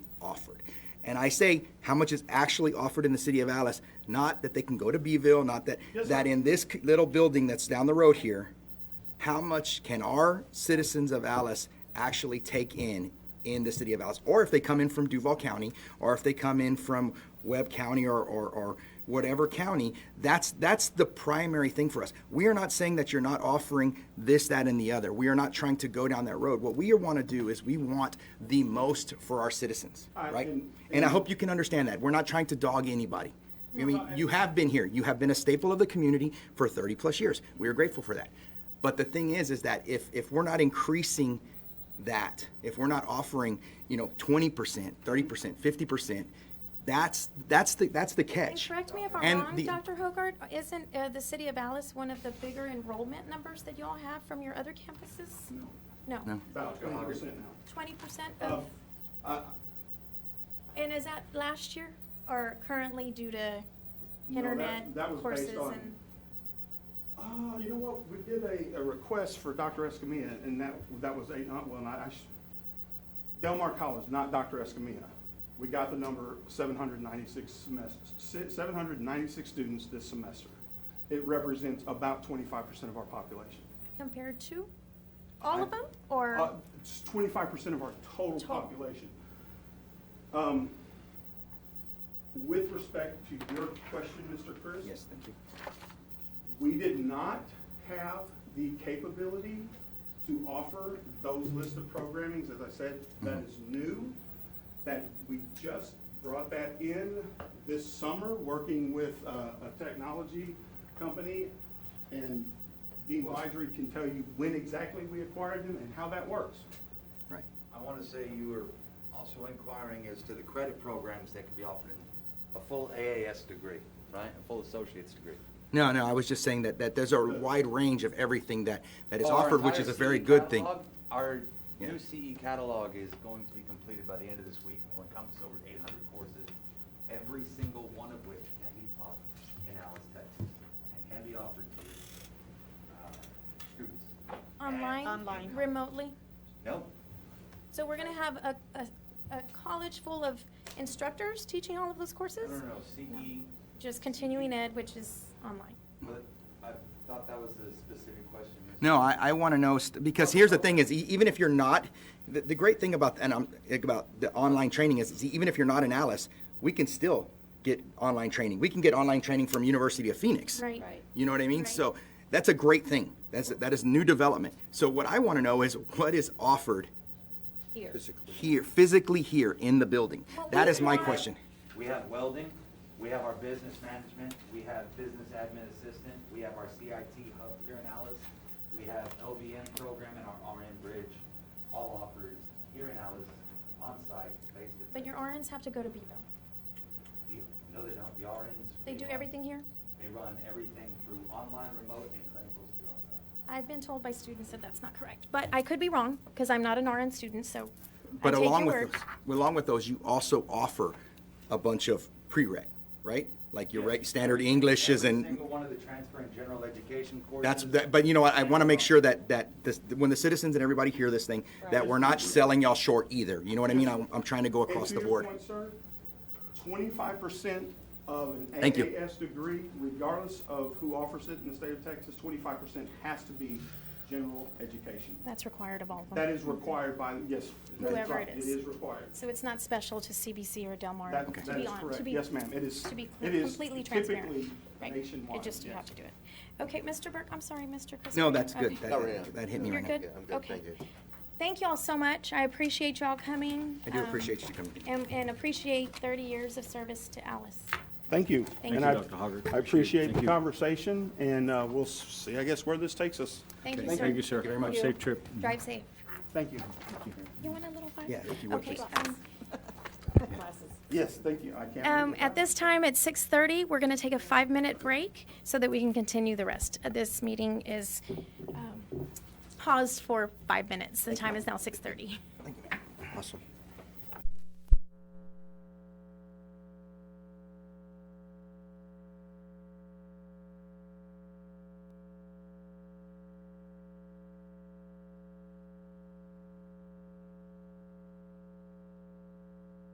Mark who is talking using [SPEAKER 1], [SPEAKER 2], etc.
[SPEAKER 1] And I say how much is actually offered in the city of Alice, not that they can go to Beeville, not that,
[SPEAKER 2] Yes,
[SPEAKER 1] that
[SPEAKER 2] sir.
[SPEAKER 1] in this c- little building that's down the road here, how much can our citizens of Alice actually take in in the city of Alice? Or if they come in from Duval County, or if they come in from Webb County or, or, or whatever county, that's, that's the primary thing for us. We are not saying that you're not offering this, that, and the other. We are not trying to go down that road. What we want to do is we want the most for our citizens,
[SPEAKER 2] I-
[SPEAKER 1] right?
[SPEAKER 2] and-
[SPEAKER 1] And I hope you can understand that. We're not trying to dog anybody. I mean, you have been here. You have been a staple of the community for 30 plus years. We are grateful for that. But the thing is, is that if, if we're not increasing that, if we're not offering, you know, 20%, 30%, 50%, that's, that's the, that's the
[SPEAKER 3] And
[SPEAKER 1] catch.
[SPEAKER 3] correct me if I'm
[SPEAKER 1] And
[SPEAKER 3] wrong,
[SPEAKER 1] the-
[SPEAKER 3] Dr. Hogarth, isn't uh, the city of Alice one of the bigger enrollment numbers that y'all have from your other campuses? No,
[SPEAKER 1] No.
[SPEAKER 2] About twenty percent now.
[SPEAKER 3] twenty percent
[SPEAKER 2] Oh.
[SPEAKER 3] of,
[SPEAKER 2] Uh,
[SPEAKER 3] and is that last year or currently due to
[SPEAKER 2] No, that-
[SPEAKER 3] internet
[SPEAKER 2] that was based
[SPEAKER 3] courses
[SPEAKER 2] on-
[SPEAKER 3] and?
[SPEAKER 2] Oh, you know what, we did a, a request for Dr. Escamilla, and that, that was eight, not, well, I, I sh- Delmar College, not Dr. Escamilla. We got the number seven hundred ninety-six semesters, seven hundred ninety-six students this semester. It represents about twenty-five percent of our population.
[SPEAKER 3] Compared to all of
[SPEAKER 2] I-
[SPEAKER 3] them or?
[SPEAKER 2] Uh, It's twenty-five percent of our total
[SPEAKER 3] Total.
[SPEAKER 2] population. Um, With respect to your question, Mr. Chris.
[SPEAKER 1] Yes, thank you.
[SPEAKER 2] We did not have the capability to offer those list of programmings, as I said, that is new. That we just brought that in this summer, working with uh, a technology company. And Dean Wydry can tell you when exactly we acquired them and how that works.
[SPEAKER 1] Right.
[SPEAKER 4] I want to say you were also inquiring as to the credit programs that can be offered in a full AAS degree, right? A full associate's degree.
[SPEAKER 1] No, no, I was just saying that, that there's a wide range of everything that, that is
[SPEAKER 4] Our
[SPEAKER 1] offered, which is a
[SPEAKER 4] entire
[SPEAKER 1] very
[SPEAKER 4] CE
[SPEAKER 1] good thing.
[SPEAKER 4] catalog- Our
[SPEAKER 1] Yeah.
[SPEAKER 4] new CE catalog is going to be completed by the end of this week and will encompass over 800 courses, every single one of which can be taught in Alice, Texas, and can be offered to uh, students.
[SPEAKER 3] Online?
[SPEAKER 5] Online.
[SPEAKER 3] Remotely?
[SPEAKER 4] No,
[SPEAKER 3] So we're gonna have a, a, a college full of instructors teaching all of those
[SPEAKER 4] no,
[SPEAKER 3] courses?
[SPEAKER 4] no, no, CE
[SPEAKER 3] Just continuing ed, which is online.
[SPEAKER 4] But I thought that was a specific question. Mr.
[SPEAKER 1] No, I, I want to know, st- because here's the thing is, e- even if you're not, the, the great thing about, and I'm, about the online training is, is even if you're not an Alice, we can still get online training. We can get online training from University of Phoenix.
[SPEAKER 3] Right.
[SPEAKER 5] Right.
[SPEAKER 1] You know what I mean?
[SPEAKER 3] Right.
[SPEAKER 1] So that's a great thing. That's, that is new development. So what I want to know is what is offered
[SPEAKER 5] Here.
[SPEAKER 1] here, physically here in the building?
[SPEAKER 3] Well,
[SPEAKER 1] That
[SPEAKER 3] we
[SPEAKER 1] is my
[SPEAKER 3] want-
[SPEAKER 1] question.
[SPEAKER 4] We have welding, we have our business management, we have business admin assistant, we have our CIT hub here in Alice, we have LVN program and our RN bridge, all offered here in Alice, on-site, based at.
[SPEAKER 3] But your RNs have to go to Bevo.
[SPEAKER 4] No, they don't, the RNs.
[SPEAKER 3] They do
[SPEAKER 4] run-
[SPEAKER 3] everything here?
[SPEAKER 4] They run everything through online, remote, and clinicals through on-site.
[SPEAKER 3] I've been told by students that that's not correct, but I could be wrong, because I'm not an RN student, so I
[SPEAKER 1] But
[SPEAKER 3] take
[SPEAKER 1] along
[SPEAKER 3] your
[SPEAKER 1] with
[SPEAKER 3] word.
[SPEAKER 1] those, along with those, you also offer a bunch of prereq, right? Like your reg- standard Englishes and.
[SPEAKER 4] Every single one of the transfer and general education courses.
[SPEAKER 1] That's, that- but you know what, I want to make sure that, that, this- when the citizens and everybody hear this thing, that we're not selling y'all short either, you know what I mean? I'm, I'm trying to go across the board.
[SPEAKER 2] And to your point, sir, twenty-five percent of an
[SPEAKER 1] Thank you.
[SPEAKER 2] AAS degree, regardless of who offers it in the state of Texas, twenty-five percent has to be general education.
[SPEAKER 3] That's required of all of
[SPEAKER 2] That
[SPEAKER 3] them.
[SPEAKER 2] is required by, yes. that's
[SPEAKER 3] Whoever
[SPEAKER 2] right,
[SPEAKER 3] it is.
[SPEAKER 2] It is required.
[SPEAKER 3] So it's not special to CBC or Del Mar,
[SPEAKER 2] That-
[SPEAKER 3] to
[SPEAKER 2] that
[SPEAKER 3] be
[SPEAKER 2] is
[SPEAKER 3] on, to
[SPEAKER 2] correct.
[SPEAKER 3] be.
[SPEAKER 2] Yes, ma'am. It is-
[SPEAKER 3] To be
[SPEAKER 2] it is
[SPEAKER 3] completely transparent.
[SPEAKER 2] typically
[SPEAKER 3] Right. It
[SPEAKER 2] nationwide,
[SPEAKER 3] just, you have
[SPEAKER 2] yes.
[SPEAKER 3] to do it. Okay, Mr. Burke, I'm sorry, Mr. Chris.
[SPEAKER 1] No, that's good,
[SPEAKER 3] Okay.
[SPEAKER 1] that, that hit me
[SPEAKER 3] You're
[SPEAKER 1] right now.
[SPEAKER 3] good? Okay. Thank y'all so much. I appreciate y'all coming.
[SPEAKER 1] I do
[SPEAKER 3] um,
[SPEAKER 1] appreciate you coming.
[SPEAKER 3] And, and appreciate thirty years of service to Alice.
[SPEAKER 2] Thank you.
[SPEAKER 3] Thank
[SPEAKER 2] And
[SPEAKER 3] you,
[SPEAKER 2] I-
[SPEAKER 6] Dr. Hoggard.
[SPEAKER 2] I appreciate
[SPEAKER 6] Thank
[SPEAKER 2] the
[SPEAKER 6] you.
[SPEAKER 2] conversation, and uh, we'll s- see, I guess, where this takes us.
[SPEAKER 3] Thank you, sir.
[SPEAKER 6] Thank you, sir.
[SPEAKER 3] very
[SPEAKER 6] Have a
[SPEAKER 3] much.
[SPEAKER 6] safe trip.
[SPEAKER 3] Drive safe.
[SPEAKER 2] Thank you.
[SPEAKER 3] You want a little fire?
[SPEAKER 1] Yeah, if you would,
[SPEAKER 3] Okay,
[SPEAKER 1] please.
[SPEAKER 3] um,
[SPEAKER 2] Yes, thank you. I can't.
[SPEAKER 3] Um,
[SPEAKER 2] remember.
[SPEAKER 3] at this time, at 6:30, we're going to take a five-minute break so that we can continue the rest. Uh, This meeting is um, paused for five minutes. The time is now 6:30.
[SPEAKER 1] Awesome.